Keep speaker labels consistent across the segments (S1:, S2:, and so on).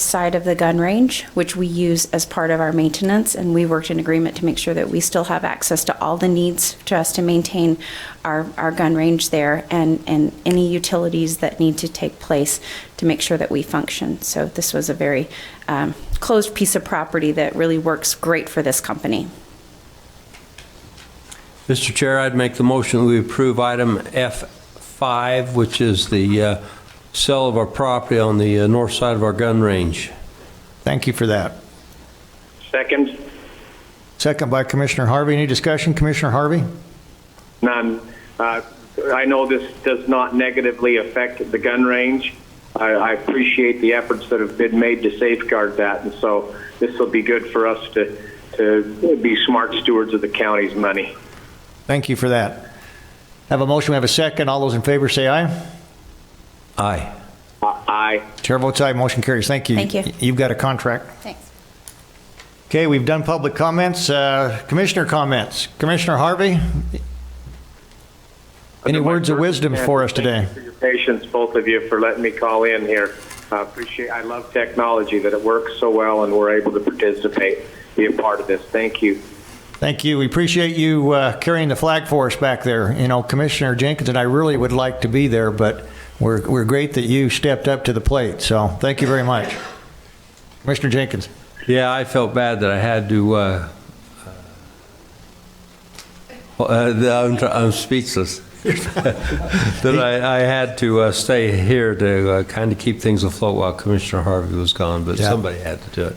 S1: side of the gun range, which we use as part of our maintenance, and we worked in agreement to make sure that we still have access to all the needs to us to maintain our, our gun range there and, and any utilities that need to take place to make sure that we function. So this was a very um, closed piece of property that really works great for this company.
S2: Mr. Chair, I'd make the motion that we approve item F5, which is the uh, sale of our property on the uh, north side of our gun range.
S3: Thank you for that.
S4: Second,
S3: Second by Commissioner Harvey. Any discussion, Commissioner Harvey?
S4: none. Uh, I know this does not negatively affect the gun range. I, I appreciate the efforts that have been made to safeguard that, and so this will be good for us to, to be smart stewards of the county's money.
S3: Thank you for that. Have a motion, we have a second. All those in favor say aye.
S2: Aye.
S4: Aye.
S3: Chair votes aye, motion carries. Thank you.
S1: Thank you.
S3: You've got a contract.
S1: Thanks.
S3: Okay, we've done public comments. Uh, Commissioner comments. Commissioner Harvey? Any words of wisdom for us today?
S4: Thank you for your patience, both of you, for letting me call in here. I appreciate, I love technology, that it works so well and we're able to participate, be a part of this. Thank you.
S3: Thank you. We appreciate you uh, carrying the flag for us back there. You know, Commissioner Jenkins and I really would like to be there, but we're, we're great that you stepped up to the plate. So thank you very much. Commissioner Jenkins?
S2: Yeah, I felt bad that I had to, uh, uh, uh, I'm tr- I'm speechless. That I, I had to uh, stay here to kind of keep things afloat while Commissioner Harvey was gone, but
S3: Yeah.
S2: somebody had to do it.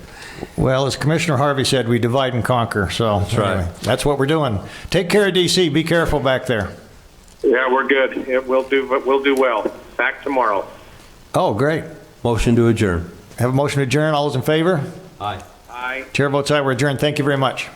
S3: Well, as Commissioner Harvey said, we divide and conquer. So that's
S2: right.
S3: that's what we're doing. Take care of DC. Be careful back there.
S4: Yeah, we're good. It will do, we'll do well. Back tomorrow.
S3: Oh, great.
S2: Motion to adjourn.
S3: Have a motion to adjourn. All those in favor?
S2: Aye.
S4: Aye.
S3: Chair votes aye. We're adjourned. Thank you very much.